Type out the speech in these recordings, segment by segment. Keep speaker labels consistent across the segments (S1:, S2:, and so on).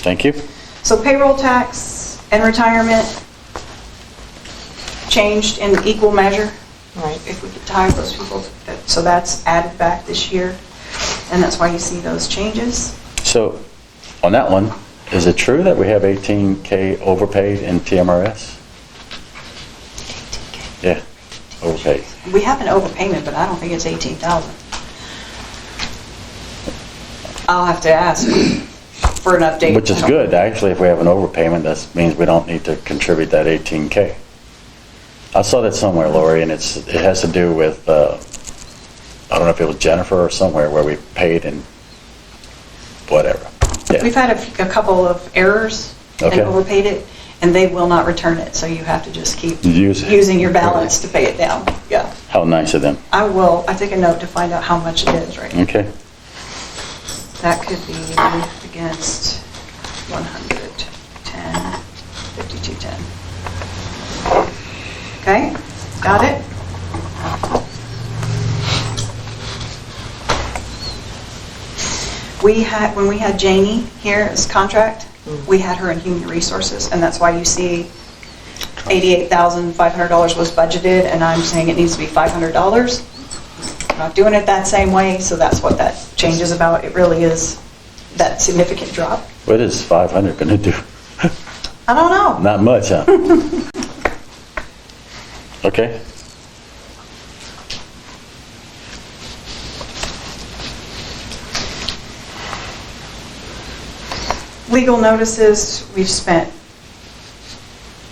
S1: Thank you.
S2: So payroll tax and retirement changed in equal measure,
S3: Right.
S2: if we could tie those people, that- so that's added back this year, and that's why you see those changes.
S1: So on that one, is it true that we have 18K overpaid in TMRS? Yeah, overpaid.
S2: We have an overpayment, but I don't think it's 18,000. I'll have to ask for an update.
S1: Which is good, actually, if we have an overpayment, that means we don't need to contribute that 18K. I saw that somewhere, Lori, and it's, it has to do with, uh, I don't know if it was Jennifer or somewhere, where we paid in whatever.
S2: We've
S1: Yeah,
S2: had a f- a couple of errors. They
S1: Okay.
S2: overpaid it, and they will not return it, so you have to just keep
S1: Use it.
S2: using your balance to pay it down. Yeah.
S1: how nice of them.
S2: I will, I take a note to find out how much it is right now.
S1: Okay,
S2: That could be against 110, 5210. Okay, got it? We had, when we had Janie here as contract, we had her in human resources, and that's why you see $88,500 was budgeted, and I'm saying it needs to be $500 not doing it that same way, so that's what that change is about. It really is that significant drop.
S1: what is 500 gonna do?
S2: I don't know.
S1: Not much, huh? Okay,
S2: Legal notices, we've spent,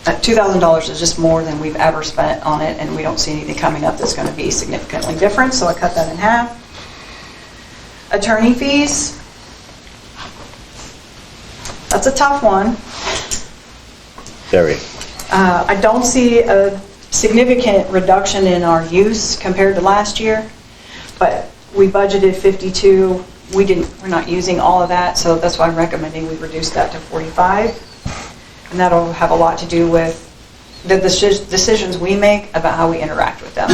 S2: uh, $2,000 is just more than we've ever spent on it, and we don't see anything coming up that's going to be significantly different, so I cut that in half. Attorney fees. That's a tough one.
S1: very,
S2: Uh, I don't see a significant reduction in our use compared to last year, but we budgeted 52. We didn't, we're not using all of that, so that's why I'm recommending we reduce that to 45. And that'll have a lot to do with the deci- decisions we make about how we interact with them.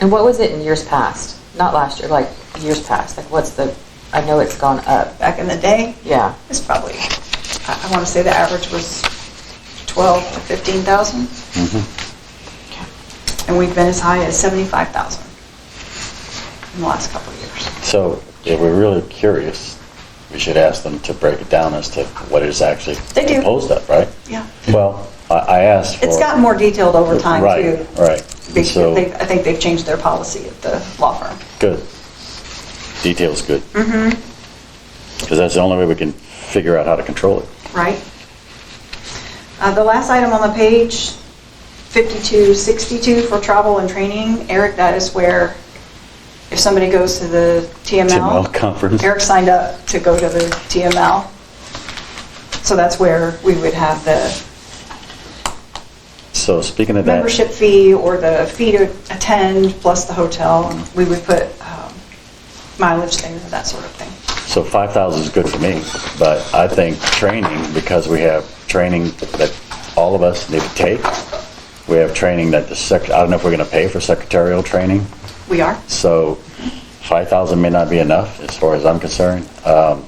S3: And what was it in years past? Not last year, like years past. Like what's the? I know it's gone up.
S2: Back in the day,
S3: Yeah.
S2: it's probably, I I want to say the average was 12 to 15,000,
S1: Mm-hmm.
S2: and we've been as high as 75,000 in the last couple of years.
S1: so if we're really curious, we should ask them to break it down as to what is actually
S2: They do.
S1: proposed up, right?
S2: Yeah.
S1: Well, I, I asked for.
S2: It's gotten more detailed over time, too.
S1: Right, right.
S2: They-
S1: So,
S2: they- I think they've changed their policy at the law firm.
S1: good. Detail's good. Mm-hmm.
S2: Mm-hmm.
S1: Because that's the only way we can figure out how to control it.
S2: right? Uh, The last item on the page, 5262 for travel and training. Eric, that is where if somebody goes to the TML.
S1: TML conference.
S2: Eric signed up to go to the TML. So that's where we would have the
S1: So speaking of that.
S2: membership fee or the fee to attend plus the hotel. We would put um, mileage there, that sort of thing.
S1: So 5,000 is good for me, but I think training, because we have training that all of us need to take, we have training that the sec, I don't know if we're going to pay for secretarial training,
S2: We are?
S1: so 5,000 may not be enough, as far as I'm concerned. Um,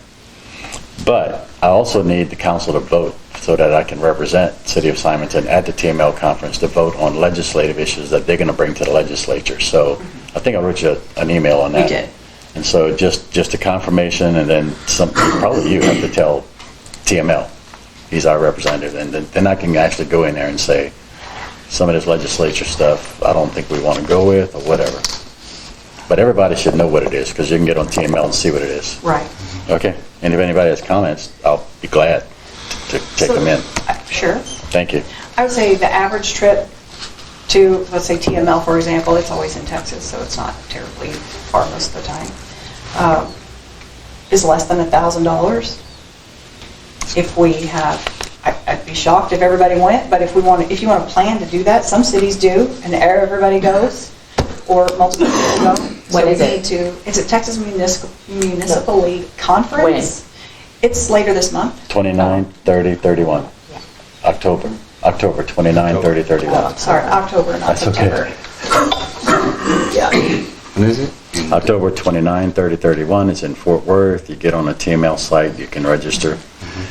S1: But I also need the council to vote so that I can represent City of Simonton at the TML conference to vote on legislative issues that they're going to bring to the legislature. So I think I wrote you an email on
S2: We
S1: that.
S2: did.
S1: And so just, just a confirmation, and then some, probably you have to tell TML, he's our representative, and then, then I can actually go in there and say, some of this legislature stuff, I don't think we want to go with, or whatever. But everybody should know what it is, because you can get on TML and see what it is. Mm-hmm.
S2: Right.
S1: Okay, and if anybody has comments, I'll be glad to take
S2: So-
S1: them in.
S2: Uh, Sure.
S1: Thank you.
S2: I would say the average trip to, let's say TML, for example, it's always in Texas, so it's not terribly far most of the time, um, is less than $1,000. If we have, I- I'd be shocked if everybody went, but if we want, if you want to plan to do that, some cities do, and everybody goes, or multiple people go.
S3: What
S2: So we
S3: is it?
S2: need to- It's a Texas Municipal Municipal League
S3: When?
S2: Conference. It's later this month.
S1: 29, 30, 31,
S3: Yeah.
S1: October, October 29, 30,
S2: Oh,
S1: 31.
S2: Sorry, October, not
S1: That's okay.
S2: September. Yeah.
S4: What is it?
S1: October 29, 30, 31, it's in Fort Worth. You get on the TML site, you can register.